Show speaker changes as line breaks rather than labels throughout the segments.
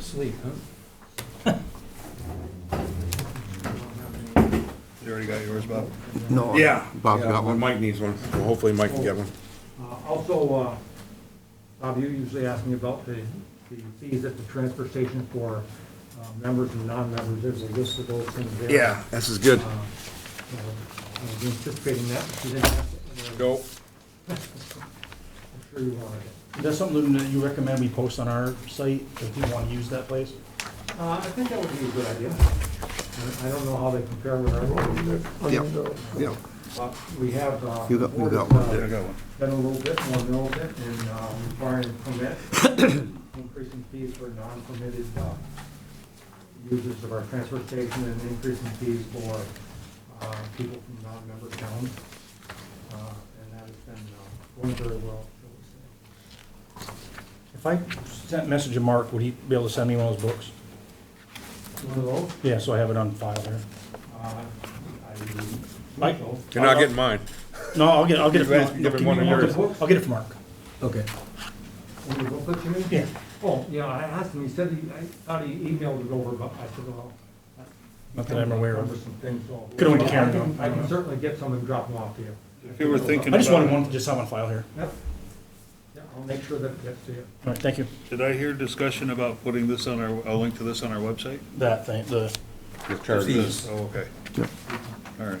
Sleep, huh?
You already got yours, Bob?
No. Bob
Yeah,
got one?
Mike needs one. Well, Hopefully Mike can get one.
Uh, Also, uh, Bob, you usually ask me about the the fees at the transfer station for uh, members and non-members. There's a list of those things there.
Yeah, this is good.
Uh, so I was anticipating that, but you didn't ask it.
Go.
I'm sure you wanted it.
Is that something that you recommend we post on our site if we want to use that place?
Uh, I think that would be a good idea. I- I don't know how they compare with our road,
Yep, yep.
but we have. uh,
You got- you got
uh,
one
I got one.
Been a little bit, more mill bit, and uh, requiring permit, increasing fees for non-permitted uh, users of our transfer station, and increasing fees for uh, people from non-member towns. Uh, And that has been uh, going very well.
If I sent a message to Mark, would he be able to send me one of those books?
shall we say. One of those,
Yeah, so I have it on file there.
uh, I
Mike?
think so.
You're not getting mine.
No, I'll get, I'll get it
You guys
from,
give him
give me
one of
one of
yours.
the- I'll get it from Mark.
Okay.
When you booklet to me?
Yeah.
Oh, yeah, I asked him, he said, he- I thought he emailed it over, but I said, well. that's-
Not that I'm aware of.
Some things, so.
Could only
Well, I
Karen
can-
know.
I can certainly get some and drop them off to you.
If you were thinking
I just wanted
about,
one to just have on file here.
Yep. Yeah, I'll make sure that it gets to you.
All right, thank you.
Did I hear discussion about putting this on our, a link to this on our website?
That thing, the,
Fees.
Oh, okay.
Yeah.
All right.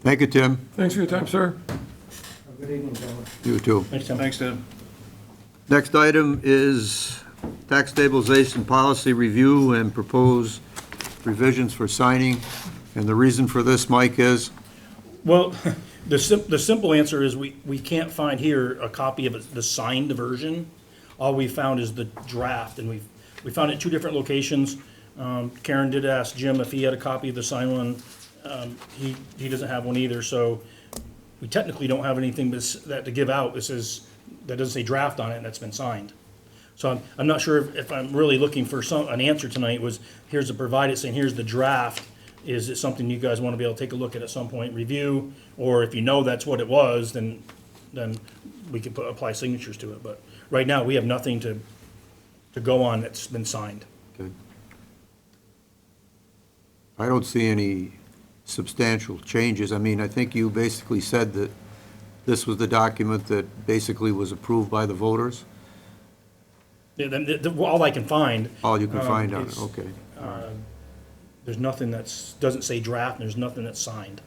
Thank you, Tim.
Thanks for your time, sir.
Have a Good evening, gentlemen.
You too.
next time.
Thanks, Tim.
Next item is tax stabilization policy review and propose revisions for signing. And the reason for this, Mike, is,
Well, the sim, the simple answer is we, we can't find here a copy of the signed version. All we found is the draft, and we, we found it two different locations. Um, Karen did ask Jim if he had a copy of the signed one. Um, he, he doesn't have one either, so we technically don't have anything that's, that to give out. This is, that doesn't say draft on it, and that's been signed. So I'm, I'm not sure if- if I'm really looking for some, an answer tonight was, here's the provided, saying here's the draft. Is it something you guys want to be able to take a look at at some point, review? Or if you know that's what it was, then, then we could put, apply signatures to it. But right now, we have nothing to, to go on that's been signed.
I don't see any substantial changes. I mean, I think you basically said that this was the document that basically was approved by the voters.
Yeah, then, the- the- all I can find,
All you can
Uh,
Um,
find on it,
it's-
okay.
there's nothing that's, doesn't say draft, and there's nothing that's signed.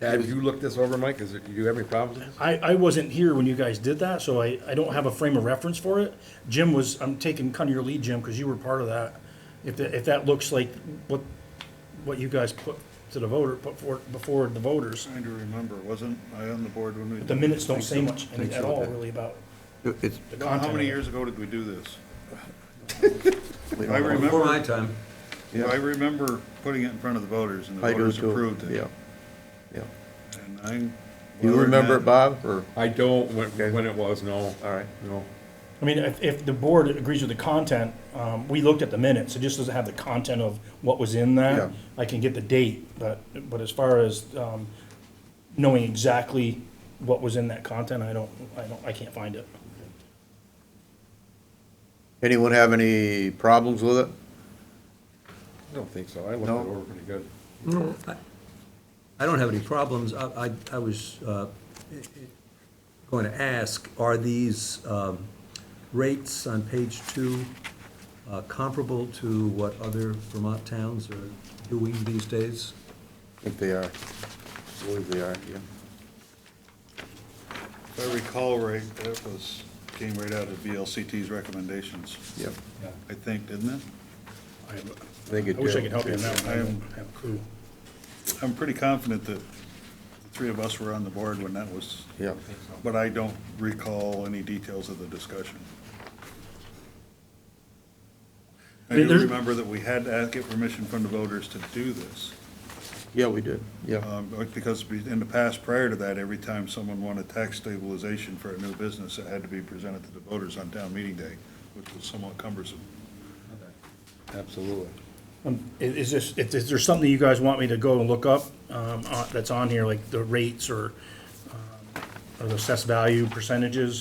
have you looked this over, Mike? Is it, do you have any problems? with this?
I, I wasn't here when you guys did that, so I, I don't have a frame of reference for it. Jim was, I'm taking kind of your lead, Jim, because you were part of that. If, that- if that looks like what, what you guys put to the voter, put forward, before the voters,
Trying to remember, wasn't I on the board when we?
but the minutes don't say much at all really about
It's,
the
Well,
content.
How
of
many
it.
years ago did we do this? I remember,
time.
I remember putting it in front of the voters and the
I do
voters
too.
approved it.
Yeah, yeah.
And I'm.
You remember it, Bob, or?
I don't, when, when it was, no.
All right.
No.
I mean, if, if the board agrees with the content, um, we looked at the minutes, it just doesn't have the content of what was in
Yeah.
that. I can get the date, but, but as far as, um, knowing exactly what was in that content, I don't, I don't, I can't find it.
Anyone have any problems with it?
I don't think so. I looked it
No.
over pretty good.
I don't have any problems. I, I, I was uh, going to ask, are these um, rates on page two uh, comparable to what other Vermont towns are doing these days?
I think they are. I believe they are, yeah.
If I recall right, that was, came right out of VLCT's recommendations,
Yep.
I think, didn't it?
I
I think it
I wish I could
did.
help you on that one, I don't have a clue.
I'm pretty confident that the three of us were on the board when that was.
Yeah.
But I don't recall any details of the discussion. I do
There-
remember that we had to get permission from the voters to do this.
Yeah, we did, yeah.
um, Because we- in the past, prior to that, every time someone wanted tax stabilization for a new business, it had to be presented to the voters on town meeting day, which was somewhat cumbersome.
Absolutely.
Um, i- Is this, if- is there something you guys want me to go and look up, um, on- that's on here, like the rates or, um, or the assessed value percentages?